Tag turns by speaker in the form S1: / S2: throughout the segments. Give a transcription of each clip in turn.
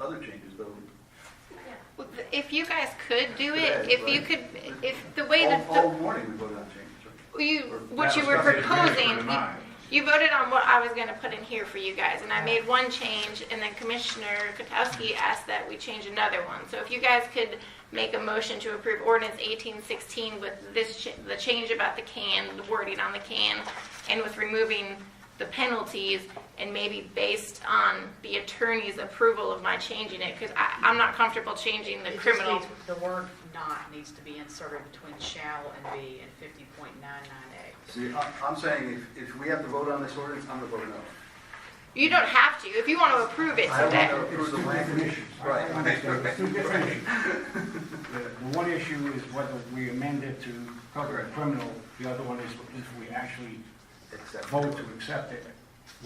S1: other changes, though.
S2: If you guys could do it,
S1: Today,
S2: if you
S1: right.
S2: could, if the way that,
S1: All, all
S2: the-
S1: morning we voted on changes, right?
S2: you, what
S3: That
S2: you
S3: was
S2: were
S3: gonna be the minute
S2: proposing,
S3: for
S2: you-
S3: tonight.
S2: you voted on what I was gonna put in here for you guys, and I made one change, and then Commissioner Kotowski asked that we change another one. So if you guys could make a motion to approve ordinance eighteen sixteen with this, ch- the change about the can, the wording on the can, and with removing the penalties, and maybe based on the attorney's approval of my changing it, because I, I'm not comfortable changing the
S4: It just
S2: criminal.
S4: needs- The word "not" needs to be inserted between shall and be in 50.99A.
S1: See, I- I'm saying if, if we have to vote on this ordinance, I'm gonna vote no.
S2: You don't have to, if you want to approve it
S1: I don't
S2: today.
S1: know.
S5: It's two different issues.
S1: Right.
S5: I understand, it's two different issues. The the one issue is whether we amend it to cover a criminal, the other one is if we actually
S1: Except.
S5: vote to accept it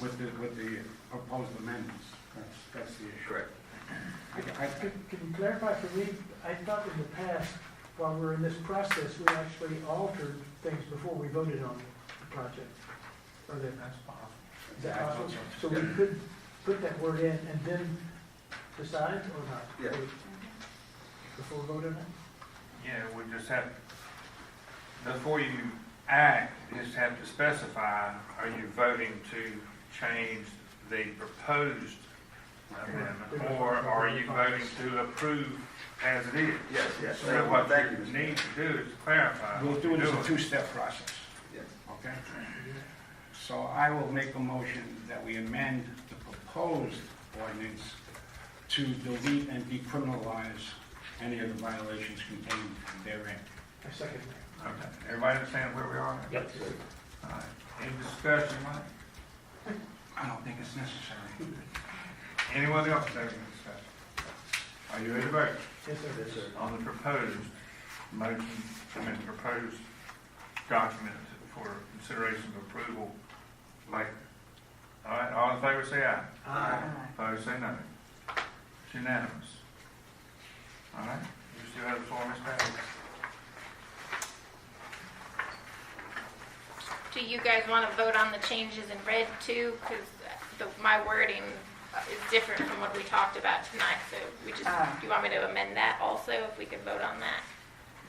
S5: with the, with the proposed amendments. That's, that's the issue.
S1: Correct.
S5: I- I-
S6: Can can you clarify for me, I thought in the past, while we were in this process, we actually altered things before we voted on the project. Or that, is that possible? So we could put that word in and then decide or not?
S1: Yeah.
S6: Before we vote on it?
S3: Yeah, we just have, before you act, you just have to specify, are you voting to change the proposed amendment? Or are you voting to approve as it is?
S1: Yes, yes.
S3: So what
S1: Thank you,
S3: you
S1: Mr.
S3: need to do is clarify.
S5: We'll
S3: what
S5: do it
S3: you're
S5: as a
S3: doing.
S5: two-step process,
S1: Yes.
S5: okay? So I will make a motion that we amend the proposed ordinance to delete and decriminalize any of the violations contained therein.
S6: I second that.
S3: Okay. Everybody understand where we are? Yep. Any discussion, Mike?
S5: I don't think it's necessary.
S3: Anyone else have any discussion? Are you ready to vote?
S6: Yes, sir.
S1: Yes, sir.
S3: on the proposed motion, I mean, proposed document for consideration of approval later. All right, all in favor, say aye.
S6: Aye.
S3: Opposed, say no. It's unanimous. All right, you still have the floor, Ms. Patty.
S2: Do you guys want to vote on the changes in red too? Because my wording is different from what we talked about tonight, so we just,
S7: Ah.
S2: do you want me to amend that also, if we could vote on that?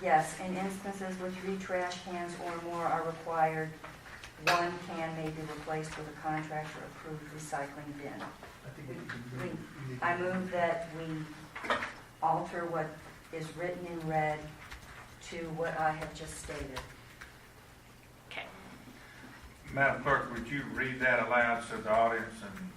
S7: Yes, in instances where three trash cans or more are required, one can may be replaced with a contractor-approved recycling bin.
S6: I think we can-
S7: We-
S6: we need to-
S7: I move that we alter what is written in red to what I have just stated.
S2: Okay.
S3: Madam Clerk, would you read that aloud so the audience and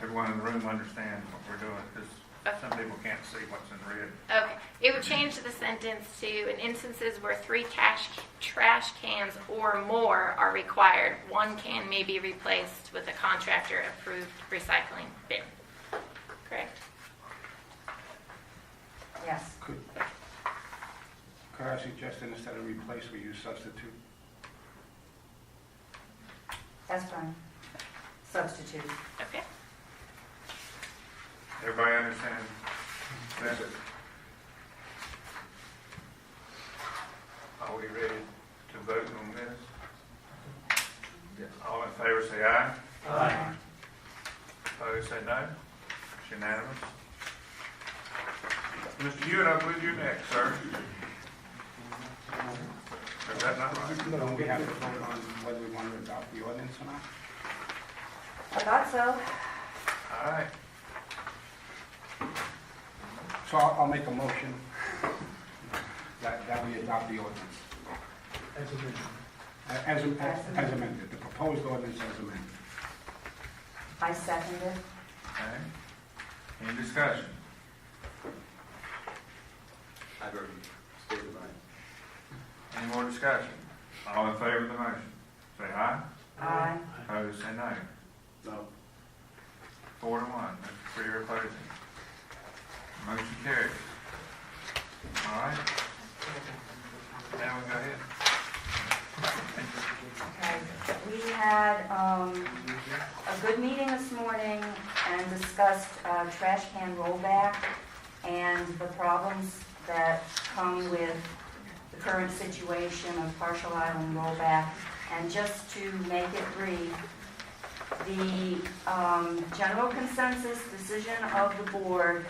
S3: everyone in the room understands what we're doing? Because some people can't see what's in red.
S2: Okay, it would change the sentence to, in instances where three cash, trash cans or more are required, one can may be replaced with a contractor-approved recycling bin. Correct?
S7: Yes,
S5: Could, could I suggest that instead of replace, we use substitute?
S7: that's fine. Substitute.
S2: Okay.
S3: Everybody understand?
S1: Yes, sir.
S3: Are we ready to vote on this?
S1: Yes.
S3: All in favor, say aye.
S6: Aye.
S3: Opposed, say no. It's unanimous. Mr. Hewitt, I believe you're next, sir. Is that not right?
S5: Don't we have to vote on whether we want to adopt the ordinance or not?
S7: I thought so.
S3: All right.
S5: So I'll, I'll make a motion that, that we adopt the ordinance,
S6: As a minute.
S5: A- as, as as amended, the proposed ordinance as amended.
S7: I second it.
S3: Okay. Any discussion?
S1: I've already stated mine.
S3: Any more discussion? All in favor of the motion, say aye.
S7: Aye.
S3: Opposed, say no.
S1: No.
S3: Four to one, Mr. Freer opposing. Motion carries. All right. Now we go ahead.
S7: Okay, we had um, a good meeting this morning and discussed uh, trash can rollback and the problems that come with the current situation of partial island rollback. And just to make it brief, the um, general consensus decision of the board